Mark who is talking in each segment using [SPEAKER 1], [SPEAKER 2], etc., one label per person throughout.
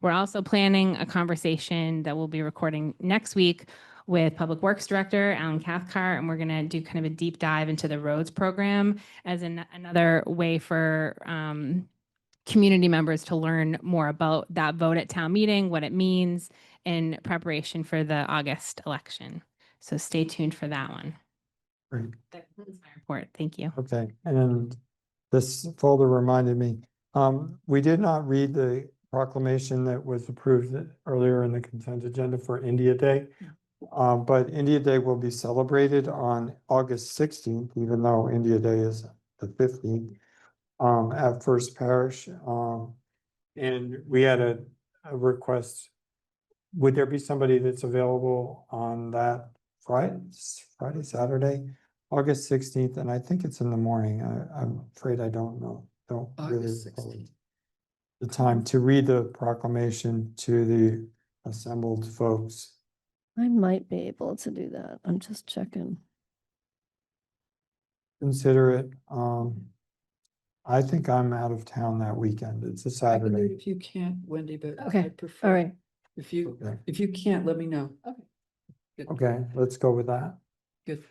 [SPEAKER 1] We're also planning a conversation that we'll be recording next week with Public Works Director Alan Cathcart, and we're going to do kind of a deep dive into the roads program as an, another way for um, community members to learn more about that vote at town meeting, what it means in preparation for the August election. So stay tuned for that one.
[SPEAKER 2] Great.
[SPEAKER 1] That concludes my report. Thank you.
[SPEAKER 2] Okay, and this folder reminded me, um, we did not read the proclamation that was approved earlier in the consent agenda for India Day. Uh, but India Day will be celebrated on August sixteenth, even though India Day is the fifteenth, um, at First Parish, um. And we had a, a request. Would there be somebody that's available on that Friday, Friday, Saturday? August sixteenth, and I think it's in the morning. I, I'm afraid I don't know, don't really.
[SPEAKER 3] August
[SPEAKER 2] recall
[SPEAKER 3] 16th.
[SPEAKER 2] The time to read the proclamation to the assembled folks.
[SPEAKER 4] I might be able to do that. I'm just checking.
[SPEAKER 2] Consider it, um. I think I'm out of town that weekend. It's a
[SPEAKER 3] I can do it
[SPEAKER 2] Saturday.
[SPEAKER 3] If you can't, Wendy, but.
[SPEAKER 4] Okay,
[SPEAKER 3] I prefer-
[SPEAKER 4] All right.
[SPEAKER 3] If you,
[SPEAKER 2] Okay.
[SPEAKER 3] if you can't, let me know.
[SPEAKER 4] Okay.
[SPEAKER 3] Good,
[SPEAKER 2] Okay, let's go with that.
[SPEAKER 3] Good.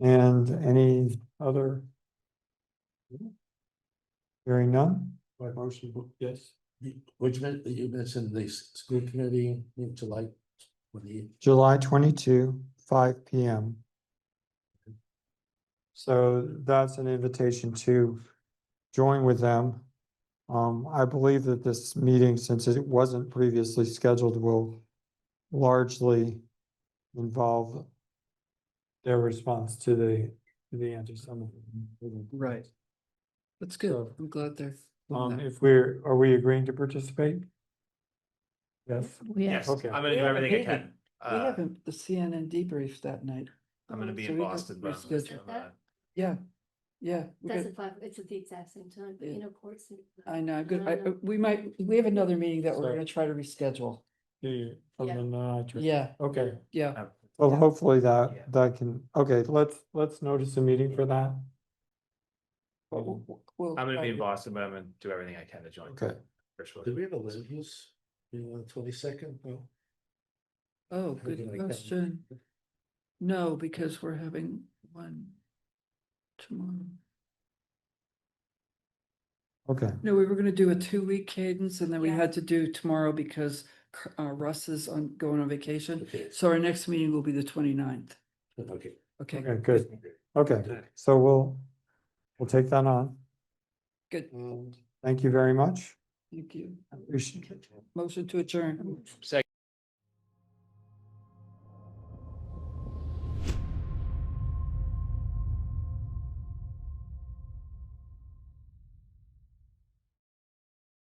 [SPEAKER 2] And any other? Hearing none? Motion,
[SPEAKER 5] Yes. Which meant that you mentioned the s- school committee in July twenty.
[SPEAKER 2] July twenty-two, five P M. So that's an invitation to join with them. Um, I believe that this meeting, since it wasn't previously scheduled, will largely involve their response to the, to the Um, anti-Semitism.
[SPEAKER 3] Right. That's good.
[SPEAKER 2] So,
[SPEAKER 3] I'm glad they're. doing
[SPEAKER 2] Um,
[SPEAKER 3] that.
[SPEAKER 2] if we're, are we agreeing to participate? Yes,
[SPEAKER 6] Yes,
[SPEAKER 4] Yes.
[SPEAKER 6] I'm
[SPEAKER 2] Okay.
[SPEAKER 6] gonna
[SPEAKER 3] We
[SPEAKER 6] do
[SPEAKER 3] have a
[SPEAKER 6] everything I
[SPEAKER 3] meeting.
[SPEAKER 6] can.
[SPEAKER 3] We
[SPEAKER 6] Uh,
[SPEAKER 3] haven't, the CNN debrief that night. Uh,
[SPEAKER 6] I'm gonna be
[SPEAKER 3] So
[SPEAKER 6] in
[SPEAKER 3] we could
[SPEAKER 6] Boston, but I'm
[SPEAKER 3] reschedule.
[SPEAKER 6] gonna- uh,
[SPEAKER 3] Yeah, yeah. we
[SPEAKER 7] That's
[SPEAKER 3] got-
[SPEAKER 7] at five, it's at the exact same time,
[SPEAKER 3] Yeah.
[SPEAKER 7] you know, courts. and-
[SPEAKER 3] I know, good. I,
[SPEAKER 7] I know.
[SPEAKER 3] we might, we have another meeting that
[SPEAKER 2] So-
[SPEAKER 3] we're gonna try to reschedule.
[SPEAKER 2] Do you? from
[SPEAKER 7] Yeah.
[SPEAKER 2] the nitrous-
[SPEAKER 3] Yeah,
[SPEAKER 2] Okay.
[SPEAKER 3] yeah.
[SPEAKER 6] uh,
[SPEAKER 2] Well,
[SPEAKER 3] Yeah.
[SPEAKER 2] hopefully
[SPEAKER 6] Yeah.
[SPEAKER 2] that, that can, okay, let's, let's notice a meeting for that.
[SPEAKER 3] w- w- we'll
[SPEAKER 6] I'm gonna
[SPEAKER 3] try
[SPEAKER 6] be in
[SPEAKER 3] to-
[SPEAKER 6] Boston, but I'm gonna do everything I can to join.
[SPEAKER 2] Okay.
[SPEAKER 6] For sure.
[SPEAKER 5] Did we have a land use, you know, on the twenty second? No.
[SPEAKER 3] Oh,
[SPEAKER 5] How do you
[SPEAKER 3] good
[SPEAKER 5] like that?
[SPEAKER 3] question. No, because we're having one tomorrow.
[SPEAKER 2] Okay,
[SPEAKER 3] No, we were gonna do a two-week cadence and then we
[SPEAKER 7] Yeah.
[SPEAKER 3] had to do tomorrow because Cr- uh, Russ is on, going on vacation.
[SPEAKER 5] Okay,
[SPEAKER 3] So our next meeting will be the 29th.
[SPEAKER 5] okay.
[SPEAKER 3] Okay,
[SPEAKER 2] okay, good. Okay, so we'll, we'll take that on.
[SPEAKER 3] good.
[SPEAKER 5] Um,
[SPEAKER 2] And thank you very much.
[SPEAKER 3] Thank you.
[SPEAKER 2] Appreciate it.
[SPEAKER 3] Motion to adjourn.